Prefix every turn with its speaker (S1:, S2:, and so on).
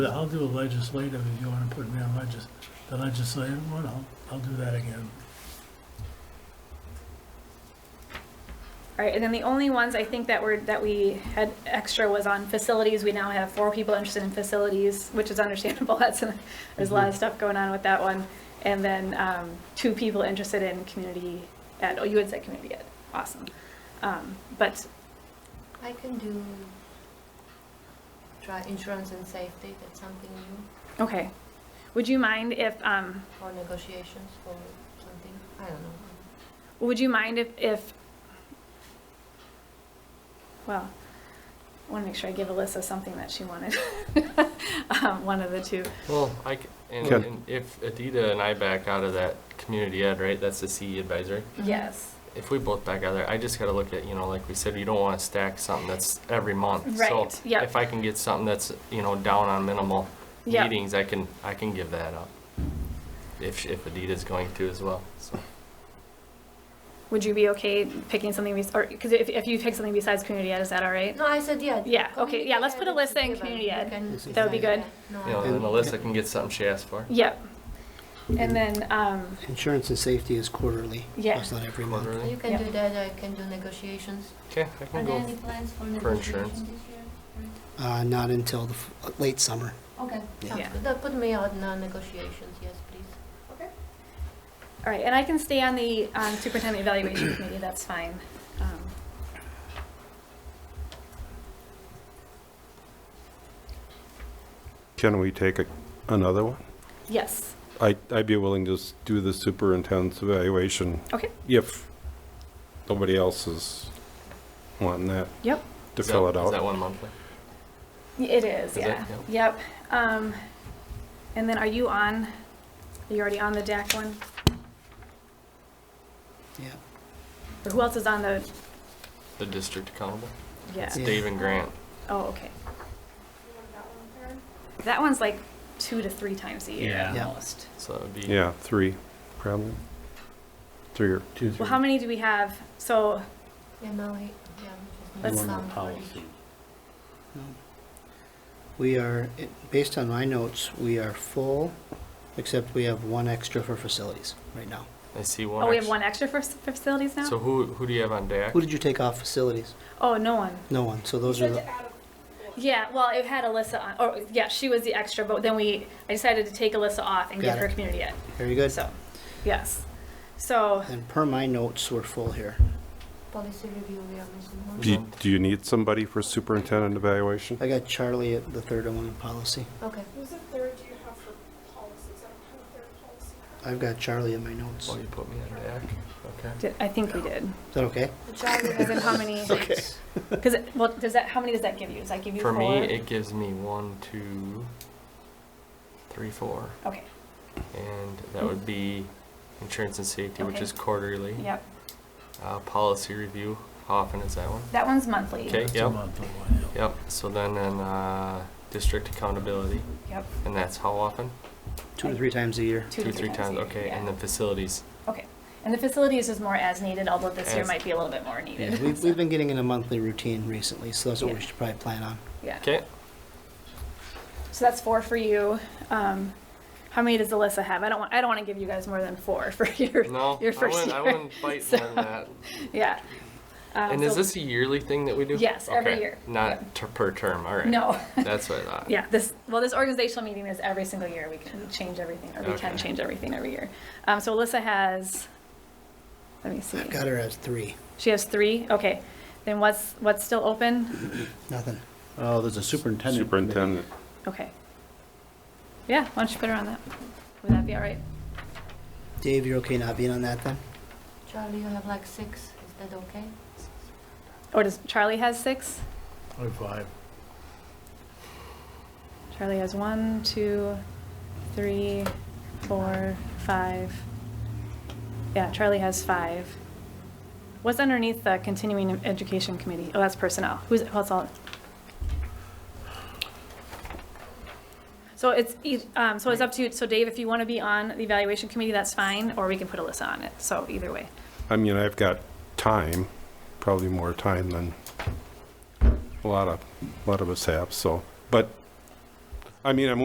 S1: I'll do a legislative if you want to put me on legis, the legislative one, I'll, I'll do that again.
S2: All right, and then the only ones I think that were, that we had extra was on facilities. We now have four people interested in facilities, which is understandable. That's, there's a lot of stuff going on with that one. And then um, two people interested in community ed. Oh, you had said community ed. Awesome. Um, But
S3: I can do try insurance and safety, that's something new,
S2: Okay. Would you mind if, um,
S3: or negotiations for something, I don't know.
S2: would you mind if, if, well, I want to make sure I give Alyssa something that she wanted. Um, one of the two.
S4: Well, I, c- and,
S5: Okay.
S4: and if Adita and I back out of that community ed, right, that's the CE advisory.
S3: Mm-hmm.
S2: Yes.
S4: If we both back out of there, I just gotta look at, you know, like we said, you don't wanna stack something that's every month. So
S2: Right, yep.
S4: If I can get something that's, you know, down on minimal
S2: Yep.
S4: meetings, I can, I can give that up. If, sh- if Adita's going to as well, so.
S2: Would you be okay picking something, bes- or, because if, if you pick something besides community ed, is that all right?
S3: No, I said, yeah.
S2: Yeah, okay,
S3: community
S2: yeah, let's
S3: ed
S2: put a
S3: is
S2: list in
S3: given,
S2: community
S3: you
S2: ed.
S3: can
S2: That would be good.
S3: decide, yeah.
S4: You know,
S3: No,
S4: and Alyssa can get something she asked for.
S2: Yep. And then, um,
S5: Insurance and safety is quarterly.
S2: Yeah.
S5: It's not every month.
S3: you
S4: Quarterly.
S3: can
S2: Yeah.
S3: do that, I can do negotiations.
S4: Okay, I
S3: Are
S4: can
S3: there
S4: go.
S3: any plans for
S4: insurance.
S3: negotiations this year?
S5: Uh, not until the f- late summer.
S3: Okay,
S5: Yeah.
S3: sounds
S2: Yeah.
S3: good, That put me on uh, negotiations, yes, please.
S2: all right, and I can stay on the um, superintendent evaluation committee, that's fine. Um,
S6: Can we take a- another one?
S2: Yes,
S6: I- I'd be willing to s- do the superintendent's evaluation
S2: okay,
S6: if nobody else is wanting that,
S2: yep.
S6: to
S4: Is that-
S6: fill it
S4: Is that
S6: out.
S4: one monthly?
S2: It is,
S4: Is it?
S2: yeah. Yep. Um, and then are you on, are you already on the DAC one?
S5: Yeah.
S2: Or who else is on the,
S4: The district accountable?
S2: yeah,
S4: It's
S5: Yeah.
S4: Dave and Grant.
S2: oh, okay. That one's like two to three times a year
S5: Yeah.
S2: almost.
S4: So that would be.
S6: Yeah, three, probably. Three or two.
S2: Well, how many do we have? So,
S3: Yeah, no, I- yeah. just
S2: Let's- One
S3: need some for each.
S5: We are, it- based on my notes, we are full, except we have one extra for facilities right now.
S4: I see one.
S2: oh, we have
S4: extra.
S2: one extra for s- for facilities
S4: So
S2: now?
S4: who, who do you have on deck?
S5: Who did you take off facilities?
S2: Oh, no one.
S5: No one. So those are, the
S2: Yeah, well, it had Alyssa on, or, yeah, she was the extra, but then we, I decided to take Alyssa off and give
S5: Got
S2: her
S5: it.
S2: community ed.
S5: very good.
S2: So, yes. So,
S5: And per my notes, we're full here.
S3: Policy review, we are missing one.
S6: Do you- do you need somebody for superintendent evaluation?
S5: I got Charlie at the third one in policy.
S3: Okay,
S7: Who's a third do you have for policies? I don't have a third policy.
S5: I've got Charlie in my notes.
S4: Oh, you
S5: Is
S4: put me on deck? Okay.
S2: did- I think we did.
S5: that okay?
S3: The child
S2: As in how many?
S5: Okay.
S2: Because well, does that? How many does that give you? Does that give you
S4: For me,
S2: four?
S4: it gives me one, two, three, four,
S2: okay.
S4: and that would be insurance and safety, which
S2: Okay.
S4: is quarterly.
S2: Yep.
S4: Uh, policy review, how often is that one?
S2: That one's monthly.
S4: Okay,
S1: That's a
S4: yep,
S1: monthly one, yeah.
S4: yep. So then, then, uh, district accountability,
S2: Yep.
S4: and that's how often?
S5: Two to three times a year.
S2: Two, to
S4: three times,
S2: a year,
S4: okay,
S2: yeah.
S4: and then facilities.
S2: okay. And the facilities is more as needed, although this year
S4: As-
S2: might be a little bit more needed.
S5: Yeah, we've, we've been getting in a monthly routine recently, so that's what we
S2: Yeah.
S5: should probably plan on.
S2: yeah.
S4: Okay,
S2: So that's four for you. Um, how many does Alyssa have? I don't want. I don't want to give you guys more than four for your
S4: no, I
S2: your first
S4: wouldn't,
S2: year.
S4: I wouldn't bite
S2: So-
S4: more than that.
S2: Yeah. Um,
S4: And is
S2: so-
S4: this a yearly thing that we do?
S2: Yes, every
S4: Okay,
S2: year.
S4: Not ter- per term, all right.
S2: No.
S4: That's what I thought.
S2: Yeah, this, well, this organizational meeting is every single year. We can change everything, or we can
S4: Okay.
S2: change everything every year. Um, so Alyssa has, let me see.
S5: I've got her as three,
S2: She has three? Okay. Then what's, what's still open?
S5: nothing.
S8: Oh, there's a superintendent. committee.
S6: Superintendent.
S2: Okay. Yeah, why don't you put her on that? Would that be all right?
S5: Dave, you're okay not being on that then?
S3: Charlie, you have like six, is that okay?
S2: Or does, Charlie has six?
S1: Or five.
S2: Charlie has one, two, three, four, five. Yeah, Charlie has five. What's underneath the continuing education committee? Oh, that's personnel. Who's, what's all? So it's, eith- um, so it's up to you. So Dave, if you want to be on the evaluation committee, that's fine, or we can put Alyssa on it. So either way.
S6: I mean, I've got time, probably more time than a lot of, a lot of us have, so. But I mean, I'm